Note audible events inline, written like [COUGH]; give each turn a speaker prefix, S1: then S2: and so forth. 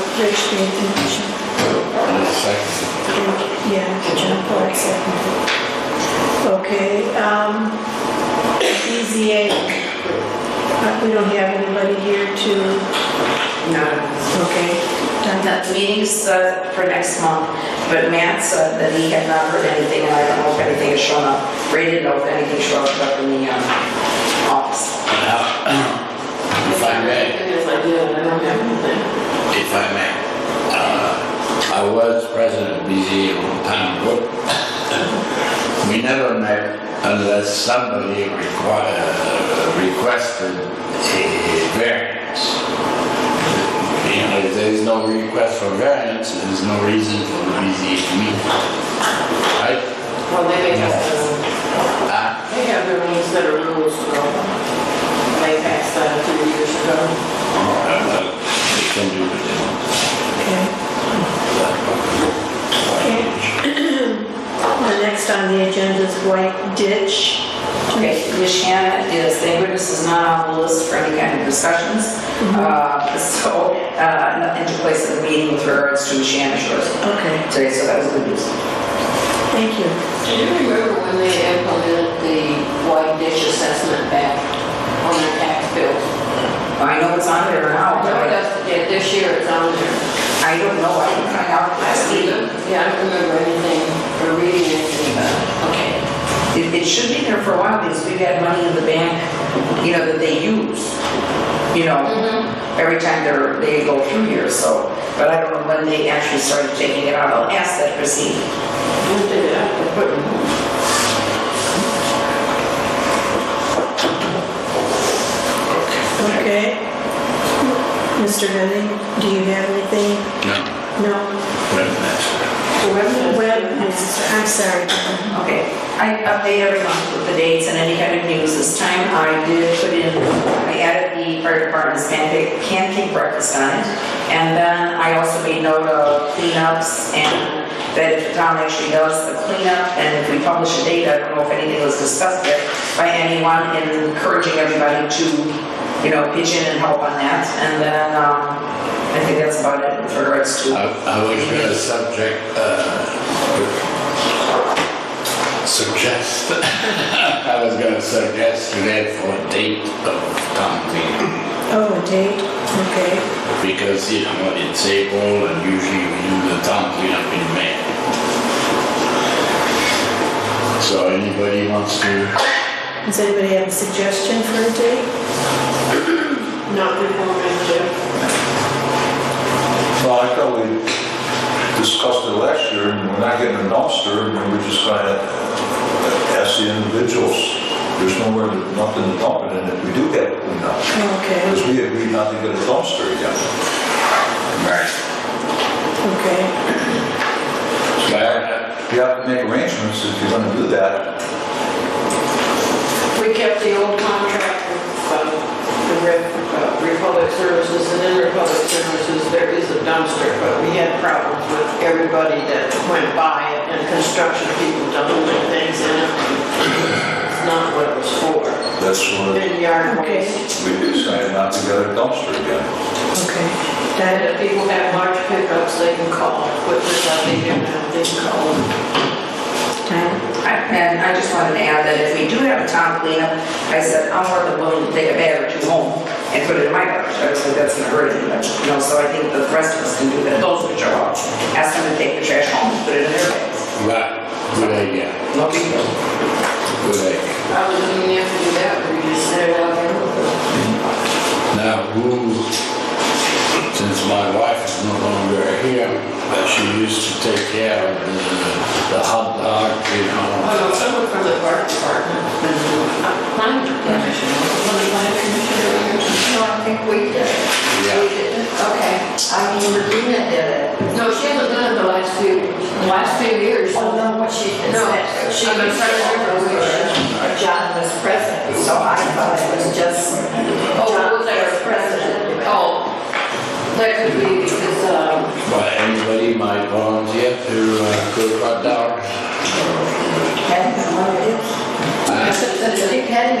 S1: made the motion.
S2: Second.
S1: Yeah, John Clark seconded. Okay, um, BZA, uh, we don't have anybody here to,
S3: No,
S1: okay, done.
S3: the meeting's set for next month, but Matt said that he had not heard anything, and I don't know if anything has shown up. Ray didn't know if anything showed up in the um, office.
S2: Uh, [CLEARS THROAT] If I may,
S4: Yes, I did, I don't have anything.
S2: if I may, uh, I was president of BZ at one time. but [LAUGHS] We never met unless somebody requi- uh, requested a variance. You know, if there's no request for variance, there's no reason for the BZ to meet. Right?
S4: Well, they make us, uh,
S2: Uh,
S4: they have their own set of rules to go by. They passed that two years ago.
S2: uh, uh, They can do what they want.
S1: okay. [COUGHS] The next on the agenda is White Ditch.
S3: Okay, Ms. Shannon is, the witness is not on the list for any kind of discussions, Uh, so uh, nothing took place at the meeting with regards to Ms. Shannon's yours
S1: Okay,
S3: today, so that was good news.
S1: thank you.
S4: Do you remember when they implemented the white dish assessment back on the tax bills?
S3: I know it's on there now,
S4: I
S3: but
S4: know
S3: I-
S4: that's, yeah, this year it's on there.
S3: I don't know, I didn't find out last meeting.
S4: Yeah, I don't remember anything or reading anything about it. Okay.
S3: It, it should be there for a while because we've had money in the bank, you know, that they use, you know, every time they're, they go through here, so. But I don't know when they actually started taking it out. I'll ask that Chrissy.
S4: We did it.
S1: Okay. Mr. Henning, do you have anything?
S2: No,
S1: No?
S2: webmaster.
S4: So when does-
S1: Well, I'm sorry.
S3: Okay, I update every month with the dates and any kind of news. This time I did put in, I added the fire department's pancake, pancake breakfast on it. And then I also made note of cleanups and that if the town actually does the cleanup and if we publish a date, I don't know if anything was discussed there by anyone and encouraging everybody to, you know, pitch in and help on that. And then, um, I think that's about it with regards to.
S2: I I was going to subject, uh, suggest, [LAUGHS] I was going to suggest to that for a date of town meeting,
S1: Oh, a date, okay.
S2: because, you know, it's April, and usually we do the town cleanup in May. So anybody wants to,
S1: Does anybody have a suggestion for a date?
S4: Not before May, Jeff.
S5: Well, I thought we discussed it last year, and we're not getting a dumpster, and we're just gonna ask the individuals, there's nowhere, to- nothing to dump it in if we do get it cleaned up.
S1: Okay,
S5: Because we agreed not to get a dumpster again.
S1: okay.
S2: but
S5: You have to make arrangements if you're gonna do that.
S4: We kept the old contract with um, the Re- uh, Republic Services, and in Republic Services, there is a dumpster, but we had problems with everybody that went by it, and construction people dumping things in it. It's not what it was for.
S5: That's when
S4: Then yard
S1: Okay.
S4: waste,
S5: we decided not to get a dumpster again.
S1: Okay.
S4: and
S1: That,
S4: if people have large pickups, they can call, which is I think they're now, they can call them.
S1: time.
S3: And I just wanted to add that if we do have a town cleanup, I said, I'm more than willing to take a bag or two home and put it in my garage. I said, that's not hurting much, you know, so I think the rest of us can do that, those which are out. Ask them to take the trash home, and put it in their bags.
S2: good idea,
S3: No big deal.
S2: good idea.
S4: I was looking after you that, we just set it out there.
S2: Now, who, since my wife is no longer here, but she used to take care of the, the hot dog, you know.
S4: Well, someone from the park department, uh, planning commission, one of the planning commissioners.
S3: No, I think
S6: uh,
S3: we did.
S2: Yeah.
S4: Okay.
S3: I mean, Regina did it.
S4: No, she hasn't done it the last few, the last few years.
S6: Oh, no, what she did.
S4: No,
S6: said.
S4: she was trying to remember
S6: when John was president, so I thought it was just.
S4: Oh, was that her president? Oh, that could be because, um,
S2: But anybody might volunteer to uh, cook hot dogs.
S6: That's what it is.
S2: I-
S6: That's a big heading